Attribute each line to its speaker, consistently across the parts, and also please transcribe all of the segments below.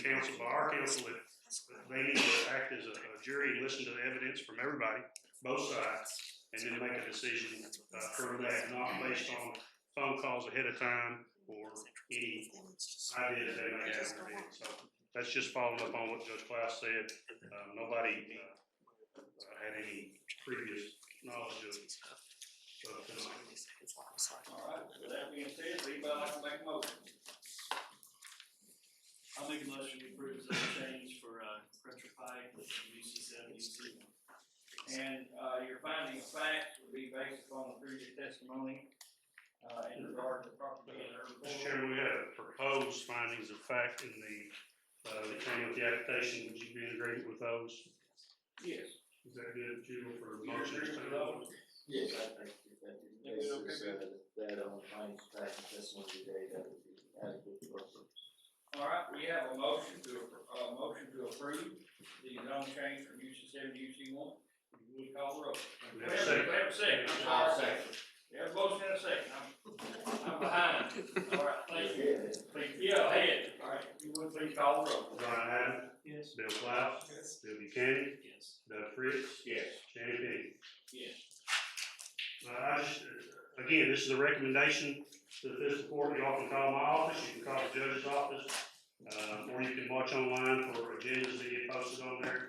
Speaker 1: the council, by our council, that that they need to act as a a jury and listen to the evidence from everybody, both sides, and then make a decision uh, for that, not based on phone calls ahead of time or any ideas they may have. or anything. So that's just following up on what Judge Klaus said. Uh, Nobody uh, uh, had any previous knowledge of, of uh, tonight.
Speaker 2: All right, with that being said, does anybody like to make a motion?
Speaker 3: I'll make a motion to approve the change for, uh, pressure pipe, which is UC seventy two.
Speaker 2: And, uh, your finding of fact would be based upon the previous testimony, uh, in regard to property and urban.
Speaker 1: Mr. Chairman, we have proposed findings of fact in the, uh, that came with the application. Would you be in agreement with those?
Speaker 2: Yes.
Speaker 1: Is that good, Jubal, for a
Speaker 2: You're
Speaker 1: motion?
Speaker 2: agreeing with those?
Speaker 4: Yes, I think if that is
Speaker 2: Yeah, we don't
Speaker 4: basis, uh, that on finding fact and testimony today, that would be adequate for us.
Speaker 2: All right, we have a motion to, appro- uh, motion to approve the zone change from UC seven to UC one. We call the roll.
Speaker 1: We have a second.
Speaker 2: We have a second, I'm sorry. We have a motion and a second, I'm, I'm behind. All right, thank you. Please, yeah, ahead. All right, you would please call the roll.
Speaker 1: Brian Adams,
Speaker 3: Yes.
Speaker 1: Bill Klaus,
Speaker 2: Yes.
Speaker 1: Bill Buchanan,
Speaker 3: Yes.
Speaker 1: Doug Fritz,
Speaker 2: Yes.
Speaker 1: Shannon Page.
Speaker 2: Yes.
Speaker 1: Uh, I just, uh, again, this is a recommendation to the fiscal court. Y'all can call my office, you can call the judge's office, uh, or you can watch online for agendas that get posted on there.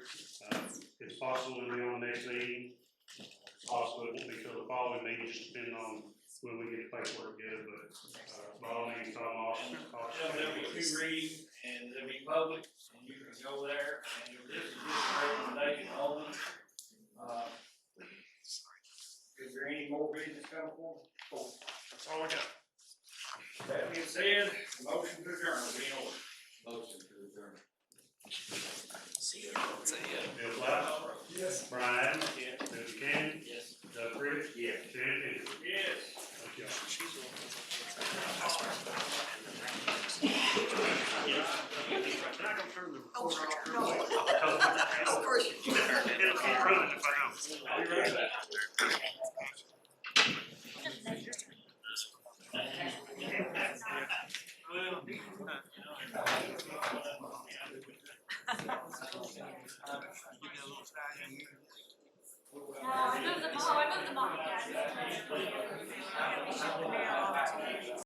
Speaker 1: Uh, It's possible to be on the next meeting. It's possible it won't be till the following meeting, just depending on when we get the paperwork together, but, uh, by all means, call my office. call the
Speaker 2: Yeah, there'll be two readings, and there'll be public, and you can go there, and if this is just a recommendation only. Uh, Is there any more business coming forward? That's all we got. That being said, motion to adjourn will be in order.
Speaker 4: Motion to adjourn.
Speaker 1: Bill Klaus,
Speaker 2: Yes.
Speaker 1: Brian Adams,
Speaker 2: Yes.
Speaker 1: Bill Buchanan,
Speaker 3: Yes.
Speaker 1: Doug Fritz, Shannon Page.
Speaker 2: Yes.
Speaker 1: Thank y'all. Can I go turn the
Speaker 5: Oh,
Speaker 1: recorder off?
Speaker 5: no.
Speaker 1: I'll tell them.
Speaker 5: Of course you
Speaker 1: It'll keep running if I don't.
Speaker 3: I'll be right back.